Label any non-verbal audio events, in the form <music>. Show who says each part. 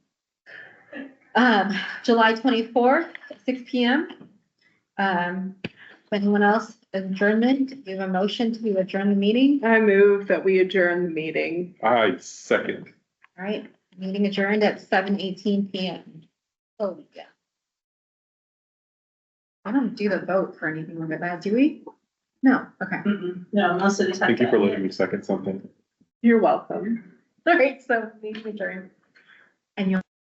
Speaker 1: Um, July twenty-fourth, six P M. Um, if anyone else adjournment, give a motion to adjourn the meeting.
Speaker 2: I move that we adjourn the meeting.
Speaker 3: I second.
Speaker 1: All right, meeting adjourned at seven eighteen P M. Oh, yeah. I don't do the vote for anything like that, do we? No, okay. <laughs>
Speaker 4: No, most of the time.
Speaker 3: Thank you for letting me second something.
Speaker 2: You're welcome.
Speaker 1: All right, so meeting adjourned.